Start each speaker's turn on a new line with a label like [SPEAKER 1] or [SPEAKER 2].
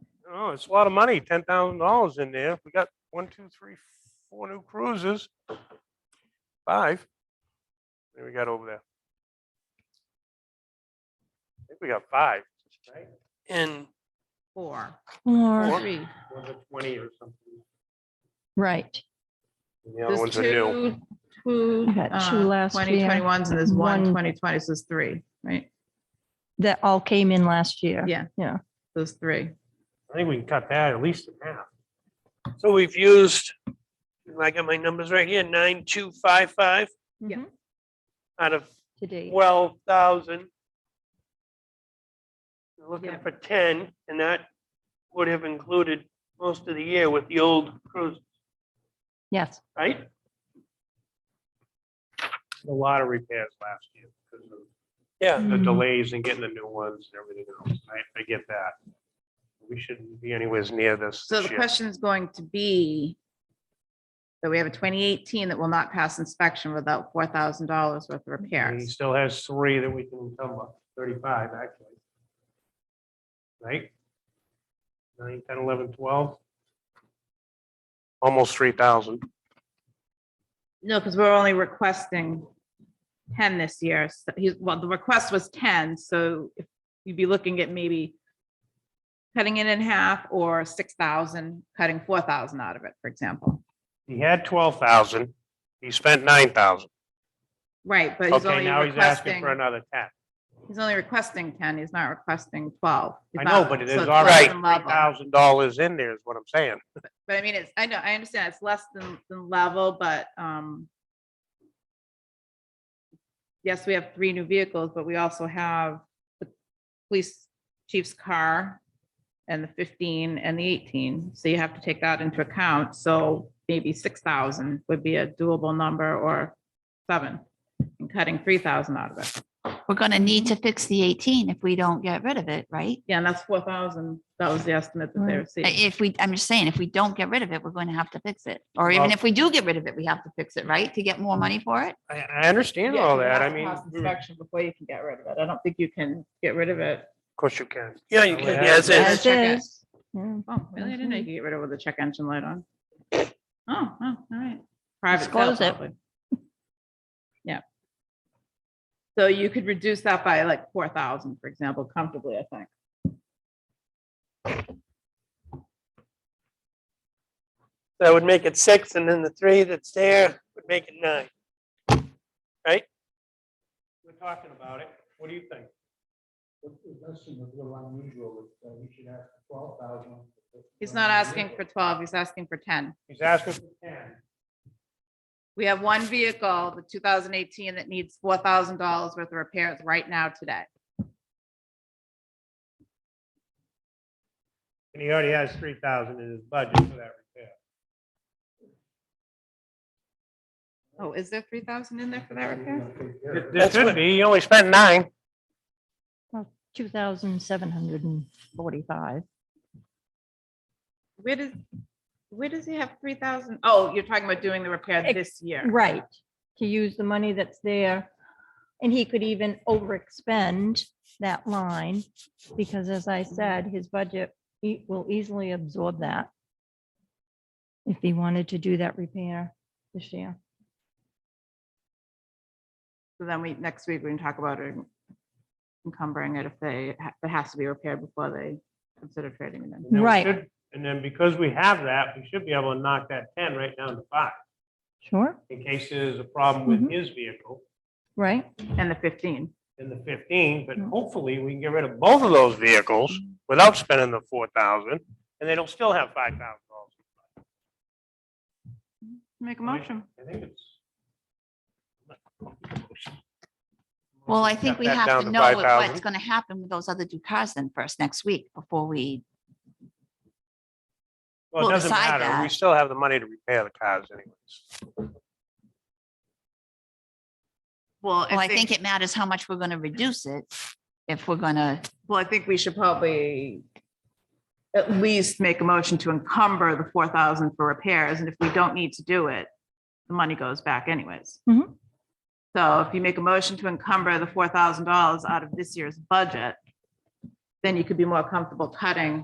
[SPEAKER 1] Oh, it's a lot of money, ten thousand dollars in there. We got one, two, three, four new cruises. Five. What do we got over there? I think we got five. right?
[SPEAKER 2] And
[SPEAKER 3] Four,
[SPEAKER 4] Or,
[SPEAKER 1] Four.
[SPEAKER 3] three.
[SPEAKER 1] One's a Twenty or something.
[SPEAKER 4] right.
[SPEAKER 1] and The other
[SPEAKER 3] There's
[SPEAKER 1] ones are new.
[SPEAKER 3] two, two,
[SPEAKER 4] I got two
[SPEAKER 3] uh,
[SPEAKER 4] last
[SPEAKER 3] twenty
[SPEAKER 4] year,
[SPEAKER 3] twenty ones and there's one
[SPEAKER 4] one-
[SPEAKER 3] twenty twenty, so there's three, right?
[SPEAKER 4] That all came in last year.
[SPEAKER 3] Yeah.
[SPEAKER 4] Yeah.
[SPEAKER 3] Those three.
[SPEAKER 1] I think we can cut that at least in half.
[SPEAKER 2] so we've used, I got my numbers right here, nine, two, five, five
[SPEAKER 3] Yeah.
[SPEAKER 4] Mhm.
[SPEAKER 2] out of
[SPEAKER 4] Today.
[SPEAKER 2] twelve thousand. Looking
[SPEAKER 3] Yeah.
[SPEAKER 2] for ten, and that would have included most of the year with the old cruise,
[SPEAKER 4] Yes.
[SPEAKER 2] right?
[SPEAKER 1] A lot of repairs last year because of
[SPEAKER 2] Yeah.
[SPEAKER 1] the
[SPEAKER 4] Mhm.
[SPEAKER 1] delays in getting the new ones and everything else. I, I get that. We shouldn't be anywhere near this.
[SPEAKER 3] So
[SPEAKER 1] this
[SPEAKER 3] the
[SPEAKER 1] year.
[SPEAKER 3] question is going to be that we have a twenty eighteen that will not pass inspection without four thousand dollars worth of
[SPEAKER 1] He
[SPEAKER 3] repairs.
[SPEAKER 1] still has three that we can encumber, thirty-five actually. Right? Nine, ten, eleven, twelve. Almost three thousand.
[SPEAKER 3] No, because we're only requesting ten this year. So he's, well, the request was ten, so if you'd be looking at maybe cutting it in half or six thousand, cutting four thousand out of it, for example.
[SPEAKER 1] He had twelve thousand. He spent nine thousand.
[SPEAKER 3] Right, but he's
[SPEAKER 1] Okay,
[SPEAKER 3] only
[SPEAKER 1] now he's asking
[SPEAKER 3] requesting,
[SPEAKER 1] for another ten.
[SPEAKER 3] he's only requesting ten, he's not requesting twelve.
[SPEAKER 1] I
[SPEAKER 3] He's
[SPEAKER 1] know,
[SPEAKER 3] not-
[SPEAKER 1] but it
[SPEAKER 3] so
[SPEAKER 1] is
[SPEAKER 3] it's
[SPEAKER 1] already
[SPEAKER 3] less
[SPEAKER 1] three
[SPEAKER 3] than level.
[SPEAKER 1] thousand dollars in there is what I'm saying.
[SPEAKER 3] But I mean, it's, I know, I understand it's less than, than level, but, um, yes, we have three new vehicles, but we also have the police chief's car and the fifteen and the eighteen. So you have to take that into account. So maybe six thousand would be a doable number or seven and cutting three thousand out of it.
[SPEAKER 5] We're gonna need to fix the eighteen if we don't get rid of it, right?
[SPEAKER 3] Yeah, and that's four thousand. That was the estimate that they
[SPEAKER 4] Right.
[SPEAKER 5] I-
[SPEAKER 3] received.
[SPEAKER 5] If we, I'm just saying, if we don't get rid of it, we're going to have to fix it. Or even
[SPEAKER 1] Well- Mm-hmm.
[SPEAKER 5] if we do get rid of it, we have to fix it, right? To get more money for it?
[SPEAKER 1] I, I understand
[SPEAKER 3] Yeah,
[SPEAKER 1] all
[SPEAKER 3] you
[SPEAKER 1] that.
[SPEAKER 3] have
[SPEAKER 1] I
[SPEAKER 3] to
[SPEAKER 1] mean, hmm.
[SPEAKER 3] pass
[SPEAKER 1] of
[SPEAKER 3] Inspection before you can get rid of it. I don't think you can get rid of it.
[SPEAKER 1] course you can.
[SPEAKER 2] Yeah, you
[SPEAKER 1] We
[SPEAKER 2] can,
[SPEAKER 1] have-
[SPEAKER 2] yeah, it's,
[SPEAKER 3] Yeah.
[SPEAKER 4] As
[SPEAKER 2] it's-
[SPEAKER 3] check it.
[SPEAKER 4] is. Yeah.
[SPEAKER 3] Oh, really? I didn't know you could get rid of it with the check engine light on. Oh, oh, all right. Private sale,
[SPEAKER 4] Disclose it.
[SPEAKER 3] probably. Yeah. So you could reduce that by like four thousand, for example, comfortably, I think.
[SPEAKER 2] that would make it six, and then the three that's there would make it nine.
[SPEAKER 1] We're talking about it. What do you think?
[SPEAKER 3] He's not asking for twelve, he's asking for ten.
[SPEAKER 1] He's asking for ten.
[SPEAKER 3] We have one vehicle, the two thousand eighteen, that needs four thousand dollars worth of repairs right now today.
[SPEAKER 1] And he already has three thousand in his budget for that repair.
[SPEAKER 3] Oh, is there three thousand in there for that repair?
[SPEAKER 1] There should be, he only spent nine.
[SPEAKER 4] Two thousand seven hundred and forty-five.
[SPEAKER 3] Where does, where does he have three thousand? Oh, you're talking about doing the repair
[SPEAKER 4] Ex-
[SPEAKER 3] this year.
[SPEAKER 4] Right. To use the money that's there. And he could even overexpend that line because as I said, his budget e- will easily absorb that. If he wanted to do that repair this year.
[SPEAKER 3] So then we, next week, we can talk about it encumbering it if they, ha- if it has to be repaired before they consider trading it in.
[SPEAKER 1] And then we
[SPEAKER 4] Right.
[SPEAKER 1] should- And then because we have that, we should be able to knock that ten right down to five,
[SPEAKER 4] Sure,
[SPEAKER 1] in case there's a problem with
[SPEAKER 3] Mm-hmm.
[SPEAKER 4] Mhm.
[SPEAKER 1] his vehicle
[SPEAKER 4] right?
[SPEAKER 3] And the fifteen.
[SPEAKER 1] in the fifteen, but
[SPEAKER 3] Mm-hmm.
[SPEAKER 4] Mhm.
[SPEAKER 1] hopefully we can get rid of both of those vehicles without spending the four thousand, and they don't still have five thousand dollars.
[SPEAKER 3] Make a
[SPEAKER 1] Right.
[SPEAKER 3] motion.
[SPEAKER 1] I think it's.
[SPEAKER 5] Well, I think we
[SPEAKER 1] Cut that
[SPEAKER 5] have
[SPEAKER 1] down
[SPEAKER 5] to know what- what's
[SPEAKER 1] 5,000.
[SPEAKER 5] going to happen with those other two cars then first next week before we,
[SPEAKER 1] Well, it
[SPEAKER 5] Well,
[SPEAKER 1] doesn't
[SPEAKER 5] beside
[SPEAKER 1] matter. We
[SPEAKER 5] that-
[SPEAKER 1] still have the money to repair the cars anyways.
[SPEAKER 3] Well,
[SPEAKER 5] well, I think it matters how much we're going to reduce it. If we're going to,
[SPEAKER 3] Well, I think we should probably at least make a motion to encumber the four thousand for repairs, and if we don't need to do it, the money goes back anyways.
[SPEAKER 4] Mhm.
[SPEAKER 3] So if you make a motion to encumber the four thousand dollars out of this year's budget, then you could be more comfortable cutting